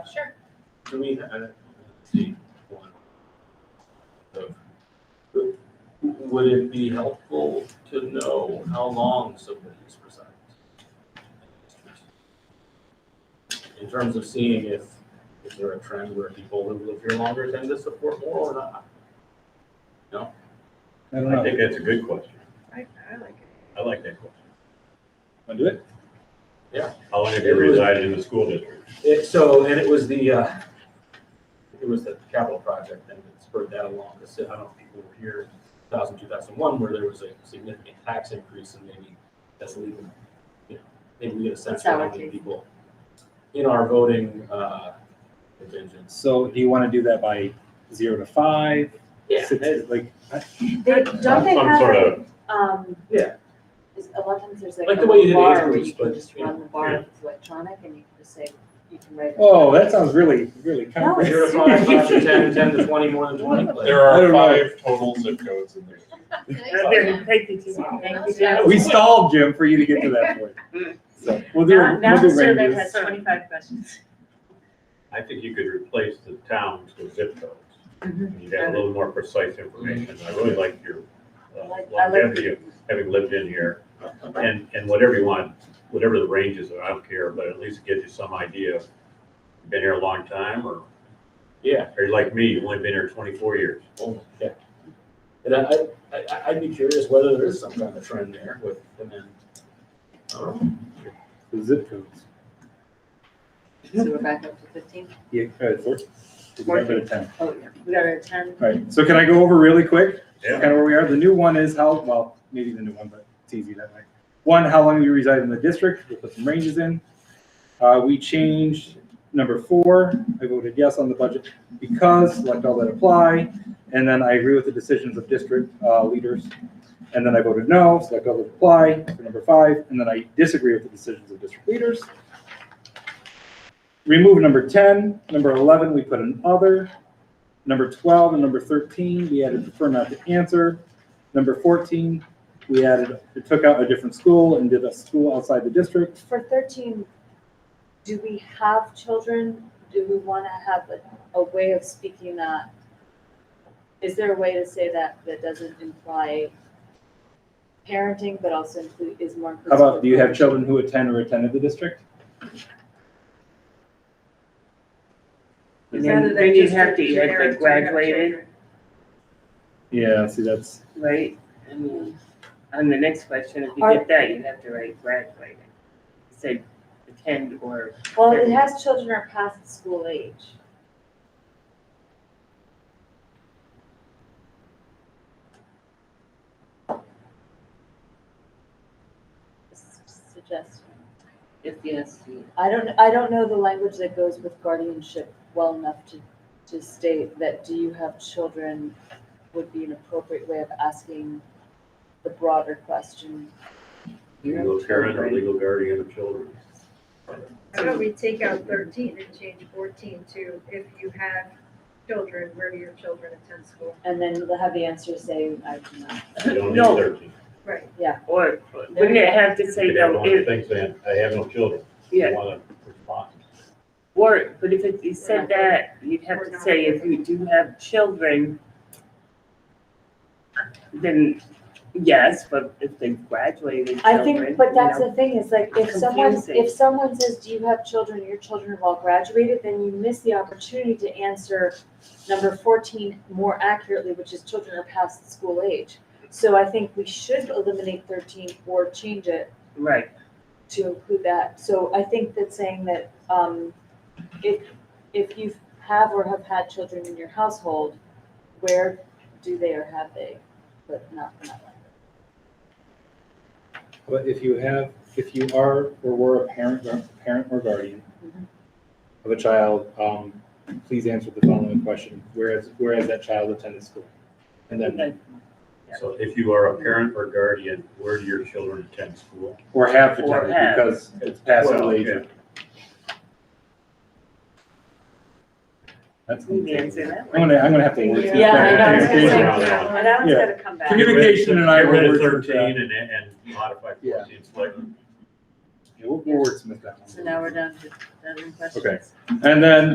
Sure. Do we have, see, one of, would it be helpful to know how long somebody's resigned? In terms of seeing if, is there a trend where people who live here longer tend to support more or not? I don't I know. think that's a good question. I, I like it. I like that question. Want to do it? How long have you resided in the school district? It, so, and it was the, uh, it was the capital project and it spurred that along, because I don't know if people were here in 2000, 2001, where there was a significant tax increase and maybe that's leading, you know, maybe we get a sense of how many Consolidating. people in our voting, uh, contingents. So do you want to do that by zero to five? Yeah. Six, like, They, don't they Some sort have, of, um, Yeah. is- a lot of times there's like Like a the way you did bar where Andrew's, you can but, just you run the bar, if it's electronic, and you can just say, you can write. oh, that sounds really, really No, Zero complicated. it's- to five, five to ten, ten to twenty, more than twenty. but- There I don't are know. five total zip codes in there. Thank you, Tim. Thank Thank you, you, Tim. We stalled, Jim, for you to get to that point. So we'll do, Now, now we'll the do survey has ranges. twenty-five questions. I think you could replace the towns with zip codes. Mm-hmm. You got a little more precise information. I really like your I uh, like- I like- longevity of having lived in here. And, and whatever you want, whatever the ranges are, I don't care, but at least it gives you some idea. of Been here a long time or, Yeah, or you like me, you've only been here twenty-four years. Oh, yeah. And I, I, I- I'd be curious whether there is some kind of trend there with, and then, um, I don't know. The Zip codes. So we're back up to fifteen? Yeah, uh, four. We got rid of ten. Oh, yeah. We got a ten. All right, so can I go over really quick? Yeah, kind of where we are. The new one is how, well, maybe the new one, but it's easy that way. One, how long you reside in the district, we put some ranges in. Uh, we changed number four, I voted yes on the budget because, select all that apply. And then I agree with the decisions of district, uh, leaders. And then I voted no, select all that apply for number five, and then I disagree with the decisions of district leaders. Remove number ten, number eleven, we put an other. Number 12 and number 13, we added prefer not to answer. Number 14, we added, it took out a different school and did a school outside the district. For thirteen, do we have children? Do we want to have a, a way of speaking that? Is there a way to say that that doesn't imply parenting, but also include, is more How inclusive? about, do you have children who attend or attended the district? And then then you have to add like graduated, Yeah, see, that's, right? I mean, On the next question, if you get that, you have to write graduated. It Said attend or, Well, it has children who are past school age. Suggestion. if yes, you. I don't, I don't know the language that goes with guardianship well enough to, to state that do you have children would be an appropriate way of asking the broader question. legal parent or legal guardian of children. How about we take out thirteen and change fourteen to if you have children, where do your children attend school? And then we'll have the answer say, I do not. You don't need No. thirteen. Right. Or, wouldn't it have to say You have though, one of if, things saying, I have no children. You yeah, wanna respond. or, but if it you said that, you'd have to say if you do have children, then yes, but if they graduated I children, think, but you that's know. the thing, is like, if someone, Confusing. if someone says, do you have children, your children have all graduated, then you miss the opportunity to answer number fourteen more accurately, which is children are past school age. So I think we should eliminate thirteen or change it Right, to include that. So I think that saying that um, if, if you have or have had children in your household, where do they or have they, but not in that language. but if you have, if you are or were a parent, or- parent or guardian Mhm. of a child, um, please answer the following question, whereas, whereas that child attended school. And then, Okay. So if you are a parent or guardian, where do your children attend school? or have Or attended have. because it's past school Well, age. yeah. That's. we can answer that I'm one. gonna, I'm gonna have to work. through Yeah, I know, I was that. gonna say, Yeah. And that one's Yeah. gotta come back. Commu- Communication and I Get rid were of words for Thirteen and, and modify Yeah. fourteen slightly. We'll, we'll wordsmith that one. So now we're down to, down to questions. Okay. And then